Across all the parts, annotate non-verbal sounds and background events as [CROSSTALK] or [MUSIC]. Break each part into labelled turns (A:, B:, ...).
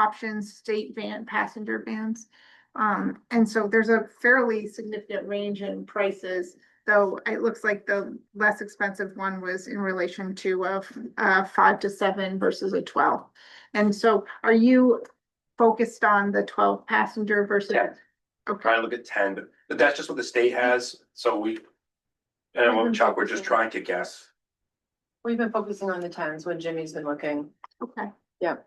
A: options, state van, passenger vans. Um, and so there's a fairly significant range in prices, though it looks like the less expensive one was in relation to a, f- a five to seven versus a twelve. And so are you focused on the twelve passenger versus?
B: Yeah.
A: Okay,
B: trying to look at ten, but- but that's just what the state has, so we. And well, Chuck, we're just trying to guess.
C: We've been focusing on the tens when Jimmy's been looking.
A: okay.
C: Yeah.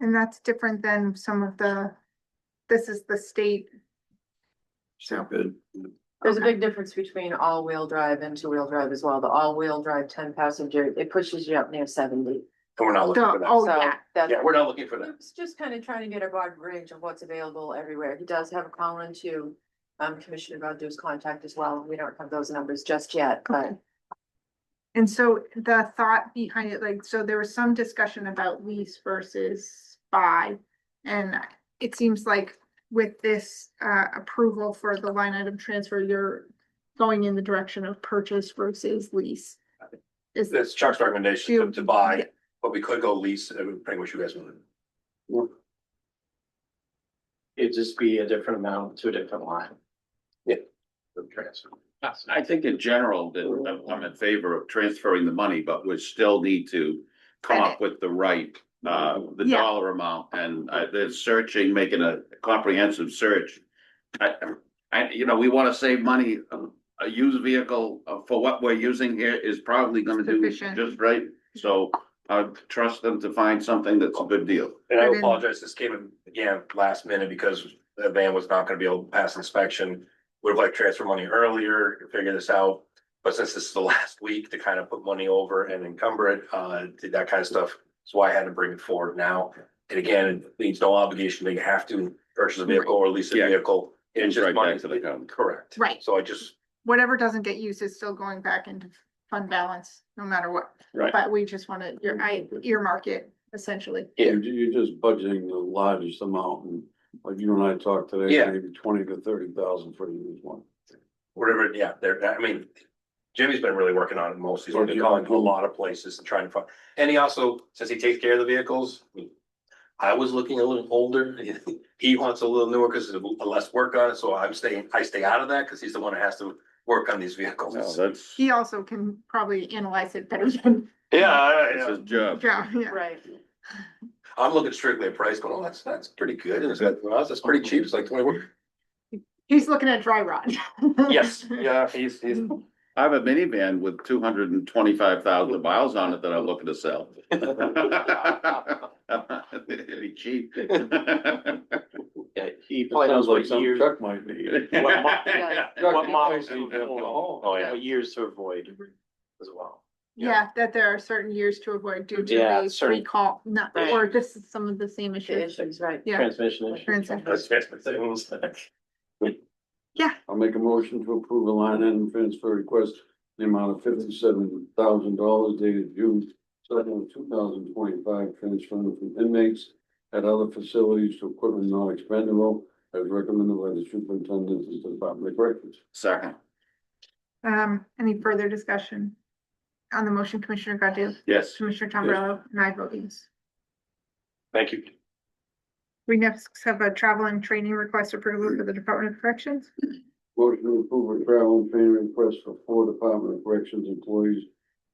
A: And that's different than some of the, this is the state. So.
B: Good.
C: There's a
A: Okay.
C: big difference between all-wheel drive and two-wheel drive as well. The all-wheel drive ten passenger, it pushes you up near seventy.
B: And we're not looking for
A: The-
B: that.
A: oh,
C: So
A: yeah.
C: that's,
B: Yeah, we're not looking for that.
C: Luke's just kind of trying to get a broad range of what's available everywhere. He does have a column to um Commissioner Godu's contact as well. We don't have those numbers just yet,
A: Okay.
C: but
A: And so the thought behind it, like, so there was some discussion about lease versus buy. And it seems like with this uh approval for the line item transfer, you're going in the direction of purchase versus lease. Is,
B: That's Chuck's recommendation to-
A: You-
B: to buy, but we could go lease, uh, pretty much you guys would.
D: It'd just be a different amount to a different line.
B: the transfer.
E: I- I think in general that I'm- I'm in favor of transferring the money, but we still need to come up with the right, uh, the
A: Yeah.
E: dollar amount and uh, the searching, making a comprehensive search. I, I, you know, we want to save money. um, A used vehicle uh, for what we're using here is probably going to do
A: Sufficient.
E: just right. So I trust them to find something that's a good deal.
B: And I
A: But in-
B: apologize, this came in, again, last minute because the van was not gonna be able to pass inspection. Would have liked to transfer money earlier, to figure this out, but since this is the [LAUGHS] last week to kind of put money over and encumber it, uh, did that kind of stuff. So I had to bring it forward now. And again, it leaves no obligation, they have to purchase a vehicle or lease a
E: Yeah.
B: vehicle. It's
E: It's
B: just
E: right
B: money.
E: back to the company.
B: Correct.
A: Right.
B: So I just,
A: whatever doesn't get used is still going back into fund balance, no matter what.
E: Right.
A: But we just wanna, your, I earmark it essentially.
B: Yeah.
F: You're, you're just budgeting the largest amount, and like you and I talked today,
B: Yeah.
F: maybe twenty to thirty thousand for each one.
B: whatever, yeah, there, I mean, Jimmy's been really working on it most, he's been calling to a lot of places and trying to find, and he also, since he takes care of the vehicles. I was looking a little older, [LAUGHS] he wants a little newer because there's less work on it, so I'm staying, I stay out of that because he's the one that has to work on these
E: So
B: vehicles.
E: that's,
A: He also can probably analyze it better than,
B: Yeah,
E: that's his job.
A: yeah, yeah.
C: right.
B: I'm looking strictly at price, going, oh, that's, that's pretty good, and it's like, well, that's pretty cheap, it's like twenty. one."
A: He's looking at dry rot.
B: Yes, yeah, he's, he's,
E: I have a minivan with two hundred and twenty-five thousand miles on it that I'm looking to sell. Pretty cheap.
D: He
F: Sounds
D: plans
F: like
D: what
F: something
D: years,
F: Chuck might need.
D: What mo-
C: Yeah.
D: what models to
F: Yeah.
D: avoid,
B: Oh, yeah.
D: what years to avoid as well.
A: Yeah, that there are certain years to avoid due to
D: Yeah,
A: the
D: certain-
A: recall, not,
D: Right.
A: or just some of the same
C: The
A: issues.
C: issues, right.
A: Yeah.
D: Transmission issues.
A: Transaction.
B: that's,
D: Things.
F: I'll make a motion to approve a line item transfer request, in the amount of fifty-seven thousand dollars dated June second, two thousand twenty-five, transferring from inmates at other facilities to equipment not expendable, as recommended by the superintendent of the Department of Corrections.
E: Second,
A: Um, any further discussion? On the motion, Commissioner Godu,
E: yes.
A: Commissioner Tombrello, and I vote yes.
B: thank you.
A: We next have a travel and training request approval for the Department of Corrections.
F: Motion to approve a travel and training request for four Department of Corrections employees,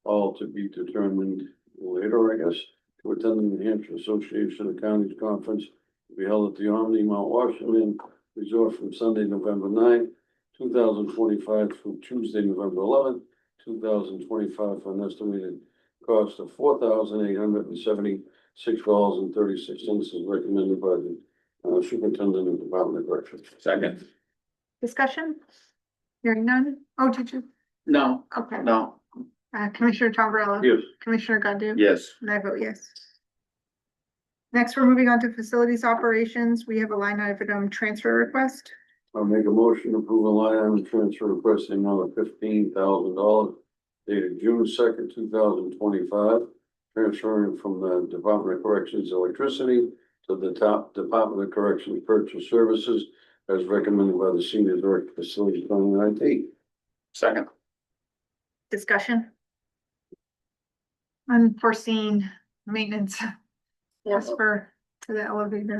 F: all to be determined later, I guess, to attend the New Hampshire Association of Counties Conference to be held at the Omni Mount Washington Resort from Sunday, November 9, two thousand twenty-five through Tuesday, November 11, two thousand twenty-five, for an estimated cost of four thousand eight hundred and seventy-six dollars and thirty-six cents, as recommended by the uh, Superintendent of Department of Corrections.
E: Second,
A: Discussion? Hearing none? Oh, did you?
E: no,
A: Okay.
E: no,
A: Uh, Commissioner Tombrello.
F: Yes.
A: Commissioner Godu.
E: yes.
A: And I vote yes. Next, we're moving on to facilities operations. We have a line item transfer request.
F: I'll make a motion to approve a line item transfer requesting another fifteen thousand dollars dated June second, two thousand twenty-five, transferring from the Department of Corrections Electricity to the top Department of Corrections Purchase Services as recommended by the Senior Director of Facilities Planning and IT.
E: Second,
A: Discussion? Unforeseen maintenance.
C: Yeah.
A: As [LAUGHS] for to the elevator